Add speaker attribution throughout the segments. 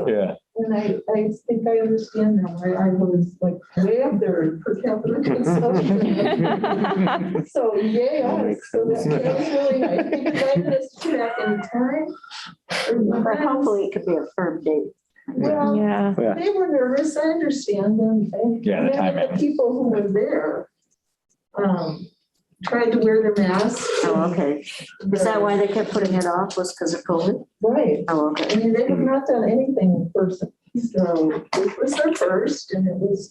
Speaker 1: Yeah,
Speaker 2: And I, I think I understand now why I was like way up there per capita
Speaker 3: Uh,
Speaker 2: consumption. So, yeah, so that's really nice. Because I missed track in time.
Speaker 4: But hopefully it could be a firm date.
Speaker 2: Well,
Speaker 5: Yeah,
Speaker 1: Yeah.
Speaker 2: they were nervous, I understand, and. and
Speaker 1: Yeah, the
Speaker 2: many of
Speaker 1: timing.
Speaker 2: People who were there, um, tried to wear their masks.
Speaker 4: Oh, okay. Is that why they kept putting it off was because of COVID?
Speaker 2: Right,
Speaker 4: Oh,
Speaker 2: I
Speaker 4: okay.
Speaker 2: mean, they have not done anything first, so this was their first, and it was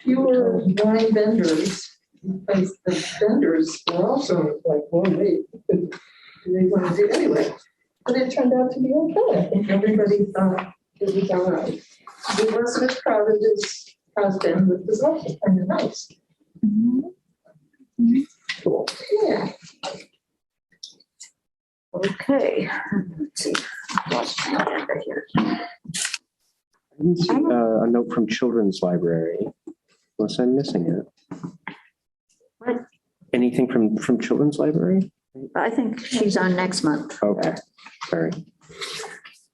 Speaker 2: fewer wine vendors. Because the vendors were also like, well, wait, do they want to do it anyway? But it turned out to be okay, I think everybody thought it was all right. It wasn't as crowded as has been, but it was also kind of nice,
Speaker 1: cool.
Speaker 2: yeah.
Speaker 4: Okay. Let's see. Lost my agenda here.
Speaker 3: I didn't see uh, a note from Children's Library, unless I'm missing it.
Speaker 4: What?
Speaker 3: Anything from, from Children's Library?
Speaker 4: I think she's on next month.
Speaker 3: Okay, sorry.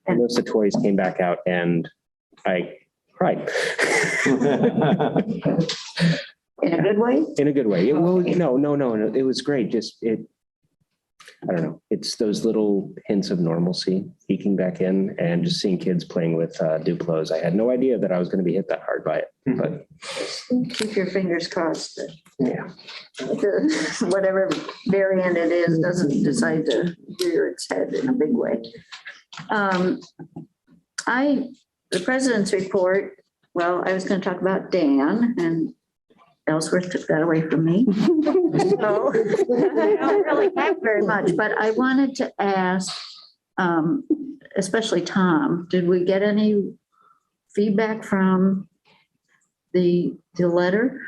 Speaker 3: I noticed the toys came back out and I cried.
Speaker 4: In a good way?
Speaker 3: In a good way. It- Well, no, no, no, no, it was great, just it, I don't know, it's those little hints of normalcy eking back in and just seeing kids playing with uh, Duplos. I had no idea that I was going to be hit that hard by it, but
Speaker 4: Keep your fingers crossed that
Speaker 3: yeah.
Speaker 4: the- whatever variant it is doesn't decide to rear its head in a big way. Um, I, the president's report, well, I was going to talk about Dan and Ellsworth took that away from me. So I don't really have very much, but I wanted to ask, um, especially Tom, did we get any feedback from the, the letter?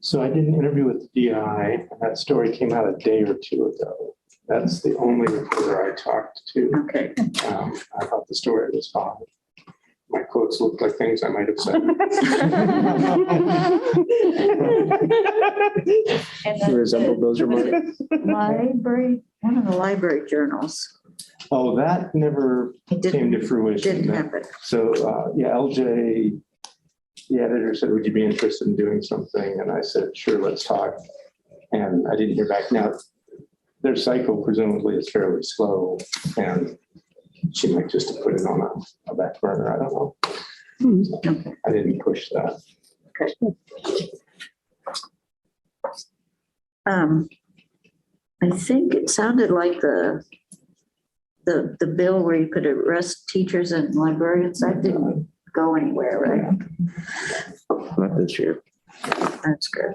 Speaker 6: So I did an interview with DI, and that story came out a day or two ago. That's the only reporter I talked to.
Speaker 4: Okay.
Speaker 6: Um, I thought the story was fine. My quotes looked like things I might have said.
Speaker 3: You resembled those remarks.
Speaker 4: Library, one of the library journals.
Speaker 6: Oh, that never
Speaker 4: It
Speaker 6: came
Speaker 4: didn't,
Speaker 6: to fruition.
Speaker 4: didn't happen.
Speaker 6: So, uh, yeah, LJ, the editor said, would you be interested in doing something? And I said, sure, let's talk. And I didn't hear back. Now, their cycle presumably is fairly slow and she might just have put it on a- a back burner. I don't know.
Speaker 4: Okay.
Speaker 6: I didn't push that.
Speaker 4: Um, I think it sounded like the, the, the bill where you could arrest teachers and librarians, that didn't go anywhere, right?
Speaker 3: Not this year.
Speaker 4: That's good.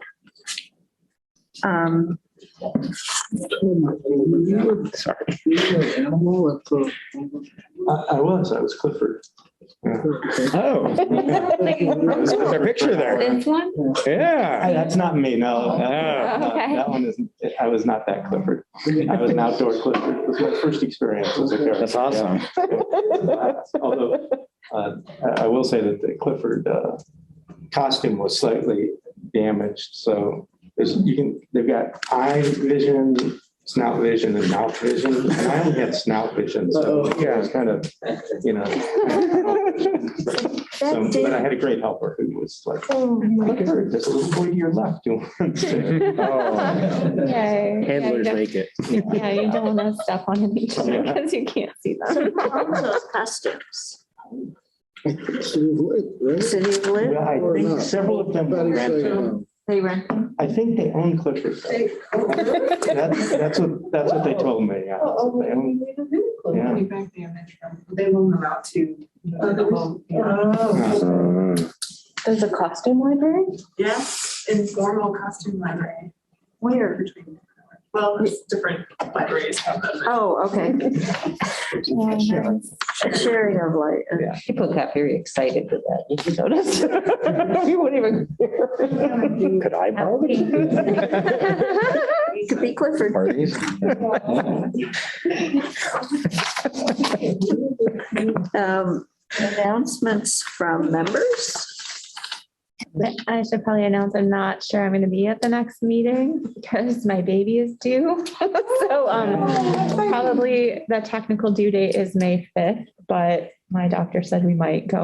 Speaker 4: Um,
Speaker 3: Sorry.
Speaker 6: I, I was, I was Clifford.
Speaker 1: Oh, there's a picture there.
Speaker 5: this one?
Speaker 6: I-
Speaker 1: Yeah.
Speaker 6: Uh, That's not me, no. That- that-
Speaker 5: Okay.
Speaker 6: That one isn't, I was not that Clifford. I was an outdoor Clifford. It was my first experience as a character.
Speaker 1: That's awesome.
Speaker 6: Although, uh, I I will say that the Clifford uh, costume was slightly damaged, so there's, you can, they've got eye vision, snout vision, and mouth vision, and I only had snout vision, so yeah, it's kind of, you know. So,
Speaker 4: that
Speaker 6: But
Speaker 4: did,
Speaker 6: I had a great helper who was like, Clifford, there's a little boy to your left. who wants to-"
Speaker 5: Yay.
Speaker 3: Handlers make it.
Speaker 5: Yeah, you don't want to step on each other because you can't see them.
Speaker 4: those customs,
Speaker 7: City of Lake, right?
Speaker 4: city of Lynn,
Speaker 6: Well, I think several of them,
Speaker 7: About to say,
Speaker 6: ran-
Speaker 7: um,
Speaker 4: they rent them.
Speaker 6: I think they own Clifford. though.
Speaker 2: They- oh, really?
Speaker 6: That's, that's what, that's what they told me. yeah.
Speaker 2: Oh, oh,
Speaker 6: They
Speaker 2: we
Speaker 6: own-
Speaker 2: need a new clue.
Speaker 6: Yeah.
Speaker 8: Back damage from, they loan them out to. uh,
Speaker 2: Others?
Speaker 8: Yeah.
Speaker 2: Oh.
Speaker 5: There's a costume library?
Speaker 8: Yes, informal costume library.
Speaker 4: Where?
Speaker 8: Between, well, it's different libraries have them.
Speaker 4: Oh, okay.
Speaker 6: Yeah.
Speaker 4: A sharing of like, uh,
Speaker 9: People got very excited with that, if you notice. We wouldn't even.
Speaker 3: Could I borrow it?
Speaker 4: could be Clifford.
Speaker 1: Parties.
Speaker 4: Um, announcements from members?
Speaker 5: I should probably announce I'm not sure I'm going to be at the next meeting because my baby is due. So um, probably the technical due date is May 5th, but my doctor said we might go